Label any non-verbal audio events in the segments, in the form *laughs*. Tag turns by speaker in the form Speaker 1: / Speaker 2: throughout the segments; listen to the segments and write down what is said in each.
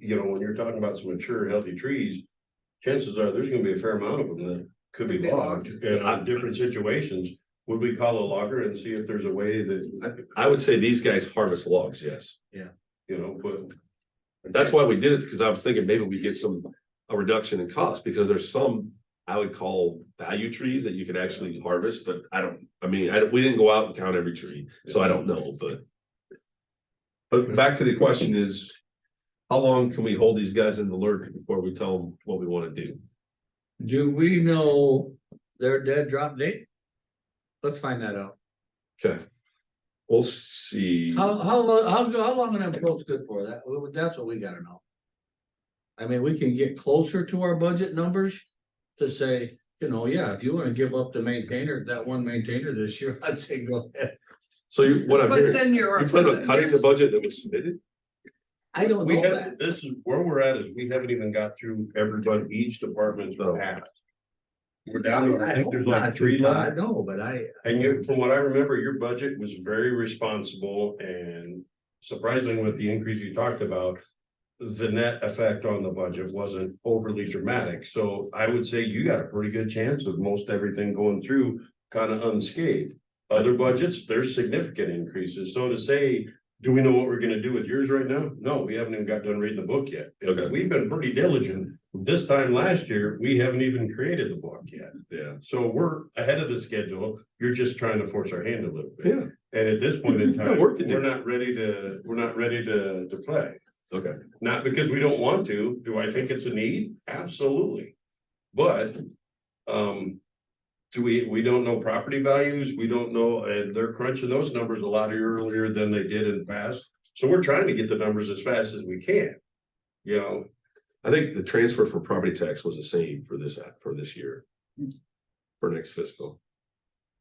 Speaker 1: you know, when you're talking about some mature, healthy trees, chances are there's gonna be a fair amount of them that could be
Speaker 2: Could be
Speaker 1: logged and on different situations. Would we call a logger and see if there's a way that,
Speaker 3: I would say these guys harvest logs, yes.
Speaker 1: you know, but.
Speaker 3: That's why we did it, because I was thinking maybe we get some, a reduction in cost, because there's some. I would call value trees that you could actually harvest, but I don't, I mean, I, we didn't go out and count every tree, so I don't know, but. But back to the question is. How long can we hold these guys in the lurch before we tell them what we wanna do?
Speaker 2: Do we know their dead drop date? Let's find that out.
Speaker 3: Okay. We'll see.
Speaker 2: How, how, lo- how, go- how long an approach good for? That, well, that's what we gotta know. I mean, we can get closer to our budget numbers to say, you know, yeah, if you wanna give up the maintainer, that one maintainer this year, *laughs* I'd say go ahead.
Speaker 3: So you, what I'm
Speaker 4: But
Speaker 3: hearing,
Speaker 4: then you're.
Speaker 3: you plan on cutting the budget that was submitted?
Speaker 2: I don't
Speaker 1: We
Speaker 2: know that.
Speaker 1: have, this is where we're at is we haven't even got through everybody, each department's path. We're down, to- I think there's like three left.
Speaker 2: I know, but I,
Speaker 1: And you, from what I remember, your budget was very responsible and surprising with the increase you talked about. The net effect on the budget wasn't overly dramatic, so I would say you got a pretty good chance of most everything going through kind of unscathed. Other budgets, there's significant increases, so to say, do we know what we're gonna do with yours right now? No, we haven't even got done reading the book yet.
Speaker 3: Okay.
Speaker 1: We've been pretty diligent. This time last year, we haven't even created the book yet.
Speaker 3: Yeah.
Speaker 1: So we're ahead of the schedule. You're just trying to force our hand a little bit.
Speaker 3: Yeah.
Speaker 1: And at this point in
Speaker 3: *laughs* We've got
Speaker 1: time,
Speaker 3: work to do.
Speaker 1: we're not ready to, we're not ready to, to play.
Speaker 3: Okay.
Speaker 1: Not because we don't want to. Do I think it's a need? Absolutely. But, um, do we, we don't know property values. We don't know, and they're crunching those numbers a lot earlier than they did in the past. So we're trying to get the numbers as fast as we can. You know,
Speaker 3: I think the transfer for property tax was the same for this, for this year. For next fiscal,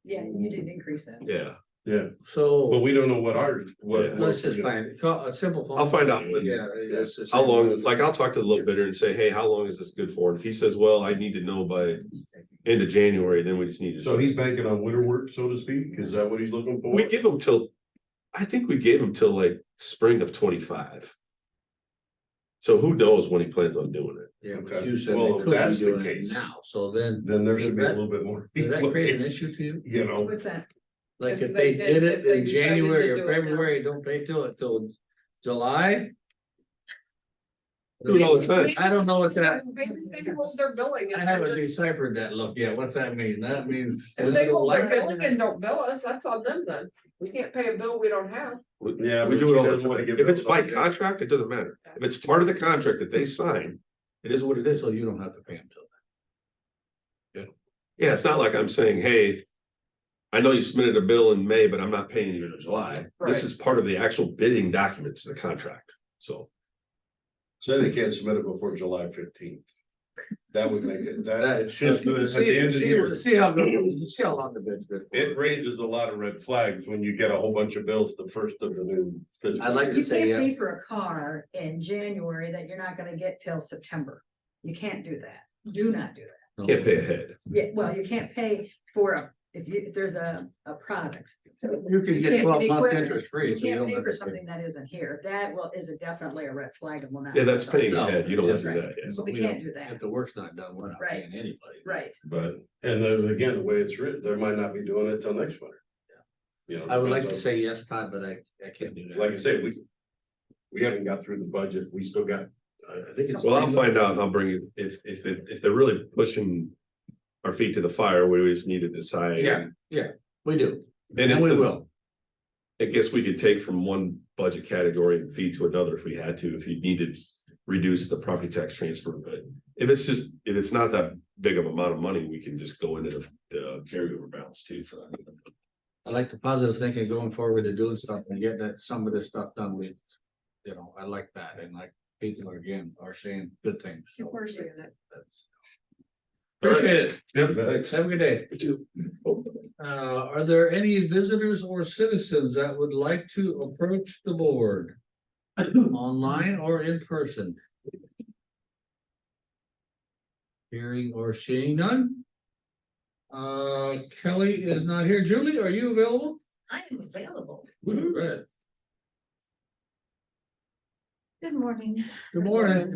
Speaker 4: Yeah, you didn't increase that.
Speaker 3: yeah,
Speaker 1: but
Speaker 2: so,
Speaker 1: we don't know what ours,
Speaker 3: Yeah.
Speaker 1: what.
Speaker 2: let's just find, call a simple. phone
Speaker 3: I'll find out
Speaker 2: call.
Speaker 3: when-
Speaker 2: Yeah. it's the
Speaker 3: how
Speaker 2: same.
Speaker 3: long, like, I'll talk to the little bidder and say, hey, how long is this good for? And if he says, well, I need to know by end of January, then we just need to.
Speaker 1: So he's banking on winter work, so to speak. Is that what he's looking for?
Speaker 3: We give him till, I think we gave him till like spring of twenty-five. So who knows when he plans on doing it?
Speaker 2: Yeah, but
Speaker 1: Okay.
Speaker 2: you said
Speaker 1: Well,
Speaker 2: they
Speaker 1: if
Speaker 2: could be
Speaker 1: that's the
Speaker 2: doing it
Speaker 1: case-
Speaker 2: now, so then,
Speaker 1: then there should be a
Speaker 2: Does that-
Speaker 1: little bit more.
Speaker 2: does that create an
Speaker 1: You
Speaker 2: issue to you?
Speaker 1: know,
Speaker 4: What's that?
Speaker 2: Like
Speaker 4: If
Speaker 2: if they
Speaker 4: they
Speaker 2: did
Speaker 4: did-
Speaker 2: it
Speaker 4: if they
Speaker 2: in
Speaker 4: decided to
Speaker 2: January or
Speaker 4: do it now.
Speaker 2: February, don't pay till it till July?
Speaker 3: Do it all the time.
Speaker 2: I don't know what that,
Speaker 4: They, they can hold their billing
Speaker 2: I
Speaker 4: and they're
Speaker 2: haven't
Speaker 4: just,
Speaker 2: deciphered that look yet. What's that mean? That means.
Speaker 4: if they hold their billing and
Speaker 2: Well,
Speaker 4: don't bill us, that's on them then. We can't pay a bill we don't have.
Speaker 1: yeah. but
Speaker 3: We do
Speaker 1: she
Speaker 3: it all the
Speaker 1: doesn't wanna
Speaker 3: time.
Speaker 1: give
Speaker 3: If
Speaker 1: it
Speaker 3: it's
Speaker 1: up.
Speaker 3: by contract, it doesn't matter. If it's part of the contract that they sign, it is what it is.
Speaker 2: So you don't have to pay them till.
Speaker 3: Yeah, it's not like I'm saying, hey. I know you submitted a bill in May, but I'm not paying you in July. This
Speaker 4: Right.
Speaker 3: is part of the actual bidding documents, the contract, so.
Speaker 1: Say they can't submit it before July fifteenth. That would make it,
Speaker 3: *laughs*
Speaker 1: that, it's just good at the end of
Speaker 2: See,
Speaker 1: the
Speaker 2: see,
Speaker 1: year.
Speaker 2: see how, good- see how long the bid's been.
Speaker 1: It raises a lot of red flags when you get a whole bunch of bills the first of the new fiscal.
Speaker 2: I'd like to
Speaker 5: You
Speaker 2: say
Speaker 5: can't pay
Speaker 2: yes.
Speaker 5: for a car in January that you're not gonna get till September. You can't do that. Do not do that.
Speaker 2: Oh.
Speaker 3: Can't pay ahead.
Speaker 5: Yeah, well, you can't pay for a, if you, if there's a, a product. So
Speaker 2: You can
Speaker 5: you
Speaker 2: get
Speaker 5: can't
Speaker 2: twelve
Speaker 5: get
Speaker 2: month
Speaker 5: equipment.
Speaker 2: interest free.
Speaker 5: you
Speaker 2: if you
Speaker 5: can't
Speaker 2: don't
Speaker 5: pay
Speaker 2: have
Speaker 5: for
Speaker 2: to pay.
Speaker 5: something that isn't here. That will, is a definitely a red flag and will not.
Speaker 3: Yeah, that's paying
Speaker 2: No.
Speaker 3: ahead. You don't have to do that. yeah.
Speaker 2: That's
Speaker 5: We
Speaker 2: don't-
Speaker 5: can't do that.
Speaker 2: If the work's not done, we're not
Speaker 5: Right.
Speaker 2: paying anybody.
Speaker 5: Right.
Speaker 1: But, and then again, the way it's written, they might not be doing it till next winter. You know.
Speaker 2: I would like to
Speaker 1: depends
Speaker 2: say yes, Todd, but I, I can't do
Speaker 1: on-
Speaker 2: that.
Speaker 1: Like I said, we, we haven't got through the budget. We still got, I, I think it's.
Speaker 3: Well, I'll find out and I'll bring you, if, if, if if they're really pushing. Our feet to the fire, we just need to decide.
Speaker 2: Yeah, We do,
Speaker 3: And if
Speaker 2: and we
Speaker 3: the-
Speaker 2: will.
Speaker 3: I guess we could take from one budget category and feed to another if we had to, if you needed. Reduce the property tax transfer, but if it's just, if it's not that big of amount of money, we can just go into the, the carryover balance too for that.
Speaker 2: I like the positive thinking going forward to doing stuff and getting that, some of this stuff done, we. You know, I like that, and like people are again are saying good things. so
Speaker 4: We're seeing it.
Speaker 2: that's-
Speaker 3: Appreciate
Speaker 1: Yep,
Speaker 3: thanks.
Speaker 2: Have a good day. Uh, are there any visitors or citizens that would like to approach the board? Online or in person? Hearing or seeing none? Uh, Kelly is not here. Julie, are you available?
Speaker 5: I am available.
Speaker 2: Go ahead.
Speaker 6: Good morning.
Speaker 5: Good morning.